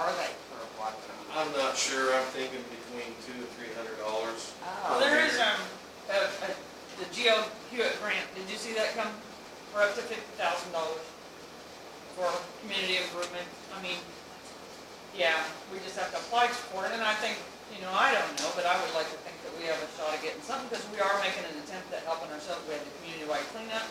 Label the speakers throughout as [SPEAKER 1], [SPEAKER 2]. [SPEAKER 1] Oh,
[SPEAKER 2] um, for up to fifty thousand dollars for community improvement. I mean, yeah, we just have to apply for it, and I think, you know, I don't know, but I would like to think that we have a shot at getting something, because we are making an attempt at helping ourselves, we had the community-wide cleanup,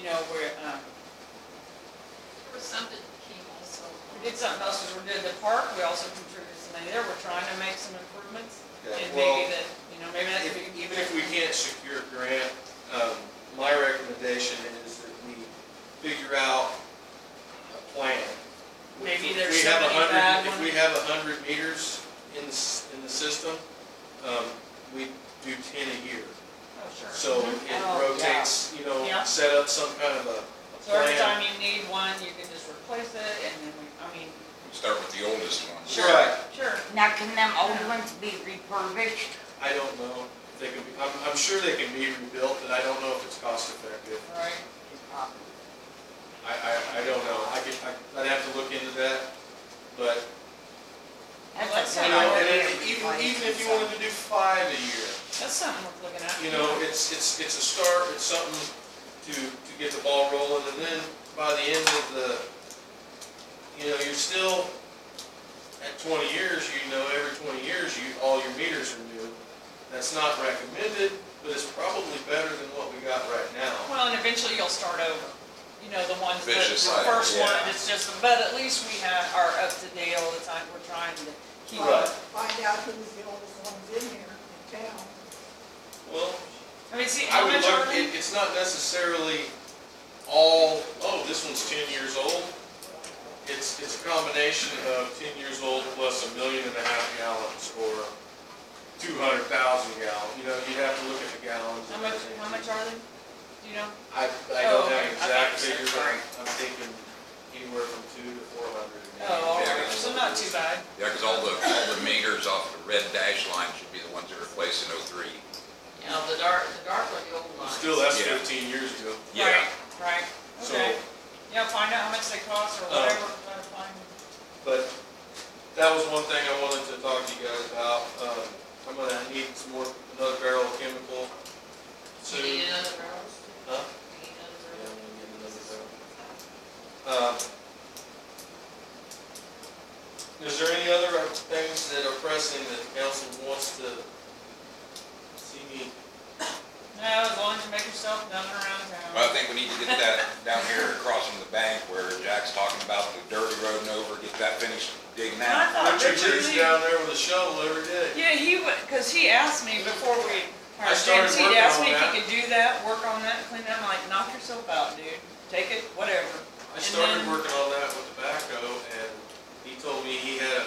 [SPEAKER 2] you know, we're, um,
[SPEAKER 3] There was something that came also.
[SPEAKER 2] we did something else, is we did the park, we also contributed some money there, we're trying to make some improvements,
[SPEAKER 4] Yeah,
[SPEAKER 2] and
[SPEAKER 4] well,
[SPEAKER 2] maybe that, you know, maybe that's.
[SPEAKER 4] If- Even if we can't secure a grant, um, my recommendation is that we figure out a plan.
[SPEAKER 2] Maybe
[SPEAKER 4] If
[SPEAKER 2] there's
[SPEAKER 4] we have
[SPEAKER 2] so
[SPEAKER 4] a
[SPEAKER 2] many
[SPEAKER 4] hundred-
[SPEAKER 2] bad
[SPEAKER 4] If we
[SPEAKER 2] ones.
[SPEAKER 4] have a hundred meters in the, s- in the system, um, we do ten a year.
[SPEAKER 2] Oh, sure.
[SPEAKER 4] So it
[SPEAKER 2] Oh, yeah.
[SPEAKER 4] rotates, you know,
[SPEAKER 2] Yeah.
[SPEAKER 4] set up some kind of a
[SPEAKER 2] So every time
[SPEAKER 4] plan.
[SPEAKER 2] you need one, you can just replace it, and then we, I mean,
[SPEAKER 5] Start with the oldest one.
[SPEAKER 2] sure,
[SPEAKER 4] Right.
[SPEAKER 2] sure.
[SPEAKER 1] Now, can them old ones be refurbished?
[SPEAKER 4] I don't know, if they can be, I'm, I'm sure they can be rebuilt, but I don't know if it's cost effective.
[SPEAKER 2] Right,
[SPEAKER 1] Is probably-
[SPEAKER 4] I, I, I don't know, I could, I- I'd have to look into that, but
[SPEAKER 1] That's
[SPEAKER 2] Well, that's
[SPEAKER 1] a
[SPEAKER 4] You
[SPEAKER 1] good
[SPEAKER 4] know, and
[SPEAKER 1] idea,
[SPEAKER 4] then even,
[SPEAKER 1] replace
[SPEAKER 4] even if you
[SPEAKER 1] some.
[SPEAKER 4] wanted to do five a year,
[SPEAKER 2] that's something worth looking at.
[SPEAKER 4] you know, it's, it's, it's a start, it's something to, to get the ball rolling, and then by the end of the, you know, you're still, at twenty years, you know, every twenty years, you, all your meters are new. That's not recommended, but it's probably better than what we got right now.
[SPEAKER 2] Well, and eventually you'll start over, you know, the ones that,
[SPEAKER 5] Vicious
[SPEAKER 2] the
[SPEAKER 5] cycle,
[SPEAKER 2] first one,
[SPEAKER 5] yeah.
[SPEAKER 2] it's just, but at least we have, are up to date all the time, we're trying to keep
[SPEAKER 4] Right.
[SPEAKER 2] up.
[SPEAKER 6] Find out who's the oldest ones in here in town.
[SPEAKER 4] Well,
[SPEAKER 2] I mean, see,
[SPEAKER 4] I would look,
[SPEAKER 2] elementary,
[SPEAKER 4] it, it's not necessarily all, oh, this one's ten years old. It's, it's a combination of ten years old plus a million and a half gallons or two hundred thousand gallons. You know, you'd have to look at the gallons.
[SPEAKER 2] how
[SPEAKER 4] and
[SPEAKER 2] much,
[SPEAKER 4] everything.
[SPEAKER 2] how much are they? Do you know?
[SPEAKER 4] I, I
[SPEAKER 2] Oh,
[SPEAKER 4] don't
[SPEAKER 2] okay.
[SPEAKER 4] have
[SPEAKER 2] I
[SPEAKER 4] an
[SPEAKER 2] thought you said
[SPEAKER 4] exact figure, but
[SPEAKER 2] sorry.
[SPEAKER 4] I'm thinking anywhere from two to four hundred.
[SPEAKER 2] Oh, all right,
[SPEAKER 5] Yeah.
[SPEAKER 2] so not too bad.
[SPEAKER 5] Yeah, because all the, all the meters off the red dash line should be the ones that are replaced in '03.
[SPEAKER 3] You know, the dark, the dark or the old lines.
[SPEAKER 4] Still, that's
[SPEAKER 5] Yeah.
[SPEAKER 4] fifteen years ago.
[SPEAKER 5] Yeah,
[SPEAKER 2] Right, Right,
[SPEAKER 4] So,
[SPEAKER 2] okay. Yeah, find out how much they cost or
[SPEAKER 4] Uh,
[SPEAKER 2] whatever, try to find.
[SPEAKER 4] But that was one thing I wanted to talk to you guys about. Um, I'm gonna need some more, another barrel of chemical
[SPEAKER 3] You need
[SPEAKER 4] soon.
[SPEAKER 3] another round?
[SPEAKER 4] Huh?
[SPEAKER 3] You need
[SPEAKER 4] Yeah,
[SPEAKER 3] another round?
[SPEAKER 4] I'm gonna get another barrel. Um, Is there any other things that are pressing that the council wants to see me?
[SPEAKER 2] No, as long as you make yourself known around town.
[SPEAKER 5] Well, I think we need to get that down here across from the bank where Jack's talking about the dirty road and over, get that finished digging
[SPEAKER 2] I
[SPEAKER 5] out.
[SPEAKER 2] thought
[SPEAKER 4] Richard
[SPEAKER 2] Richard
[SPEAKER 4] Lee's
[SPEAKER 2] Lee-
[SPEAKER 4] down there with a shovel every day.
[SPEAKER 2] Yeah, he would, because he asked me before we,
[SPEAKER 4] I
[SPEAKER 2] hired
[SPEAKER 4] started
[SPEAKER 2] James, he'd
[SPEAKER 4] working
[SPEAKER 2] asked
[SPEAKER 4] on
[SPEAKER 2] me if
[SPEAKER 4] that.
[SPEAKER 2] he could do that, work on that, clean that, I'm like, knock yourself out, dude, take it, whatever.
[SPEAKER 4] I started
[SPEAKER 2] then-
[SPEAKER 4] working on that with the backhoe and he told me he had a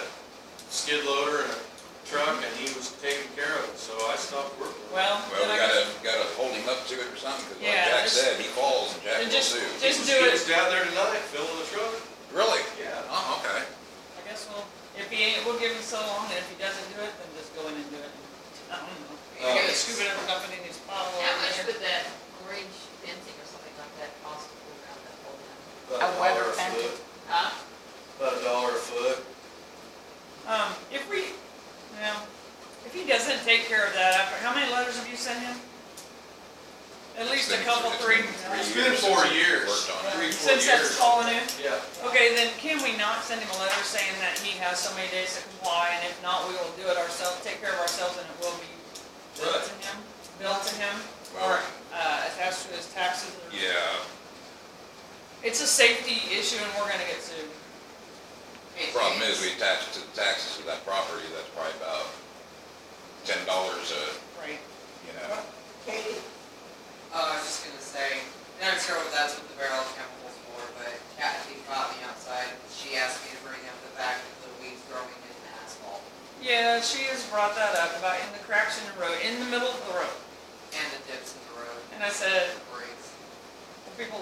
[SPEAKER 4] skid loader and a truck and he was taking care of it, so I stopped working.
[SPEAKER 2] Well, then
[SPEAKER 5] Well, we
[SPEAKER 2] I
[SPEAKER 5] gotta,
[SPEAKER 2] guess,
[SPEAKER 5] gotta hold him up to it or something, because like
[SPEAKER 2] Yeah,
[SPEAKER 5] Jack
[SPEAKER 2] just-
[SPEAKER 5] said, he falls and Jack
[SPEAKER 2] and
[SPEAKER 5] will
[SPEAKER 2] just,
[SPEAKER 5] sue.
[SPEAKER 2] just do
[SPEAKER 4] He was
[SPEAKER 2] it,
[SPEAKER 4] down there tonight filling the truck.
[SPEAKER 5] Really?
[SPEAKER 4] Yeah.
[SPEAKER 5] Oh, okay.
[SPEAKER 2] I guess we'll, if he ain't, we'll give him so long, and if he doesn't do it, then just go in and do it. I don't know,
[SPEAKER 4] Uh,
[SPEAKER 2] you're gonna scoop it up, dump it in his pile
[SPEAKER 3] How much
[SPEAKER 2] over there.
[SPEAKER 3] would that orange fencing or something like that cost to put around that whole thing?
[SPEAKER 4] About
[SPEAKER 1] A weather
[SPEAKER 4] dollar
[SPEAKER 1] fence.
[SPEAKER 4] foot.
[SPEAKER 3] Huh?
[SPEAKER 4] About a dollar a foot.
[SPEAKER 2] Um, if we, now, if he doesn't take care of that after, how many letters have you sent him? At least a
[SPEAKER 5] It's been-
[SPEAKER 2] couple,
[SPEAKER 5] it's
[SPEAKER 2] three.
[SPEAKER 5] been
[SPEAKER 4] It's
[SPEAKER 5] three
[SPEAKER 4] been
[SPEAKER 5] years
[SPEAKER 4] four
[SPEAKER 5] since we
[SPEAKER 4] years.
[SPEAKER 5] Worked on it.
[SPEAKER 4] three, four
[SPEAKER 2] Since that's
[SPEAKER 4] years.
[SPEAKER 2] calling in?
[SPEAKER 4] Yeah.
[SPEAKER 2] Okay, then can we not send him a letter saying that he has so many days to comply, and if not, we will do it ourselves, take care of ourselves, and it will be billed to him, billed to him, or, uh, attached to his taxes? or-
[SPEAKER 5] Yeah,
[SPEAKER 2] It's a safety issue, and we're gonna get sued.
[SPEAKER 5] problem is, we attach it to the taxes of that property, that's probably about ten dollars a,
[SPEAKER 2] Right.
[SPEAKER 5] you know.
[SPEAKER 6] Katie,
[SPEAKER 7] Oh, I was just gonna say, and I'm sure that's what the barrel of chemicals for, but Kathy brought me outside, and she asked me to bring up the fact of the weeds growing in the asphalt
[SPEAKER 2] Yeah, she has brought that up, about in the cracks in the road, in the middle of the road,
[SPEAKER 7] and the dips in the road,
[SPEAKER 2] and I said,
[SPEAKER 7] the breaks.
[SPEAKER 2] people